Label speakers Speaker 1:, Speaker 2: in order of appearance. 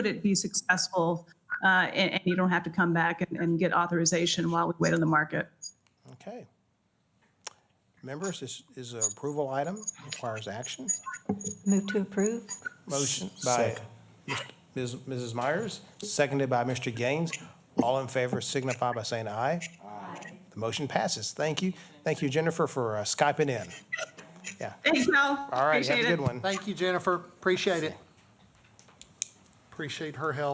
Speaker 1: could it be successful? Uh, and, and you don't have to come back and, and get authorization while we wait on the market.
Speaker 2: Okay. Members, this is an approval item, requires action.
Speaker 3: Move to approve?
Speaker 2: Motion by Ms. Mrs. Myers, seconded by Mr. Gaines. All in favor signify by saying aye. Aye. The motion passes. Thank you. Thank you, Jennifer, for uh, Skyping in. Yeah.
Speaker 1: Thanks, Mel.
Speaker 2: All right, have
Speaker 1: Appreciate
Speaker 2: a
Speaker 1: it.
Speaker 2: good one.
Speaker 4: Thank you, Jennifer. Appreciate it. Appreciate her help.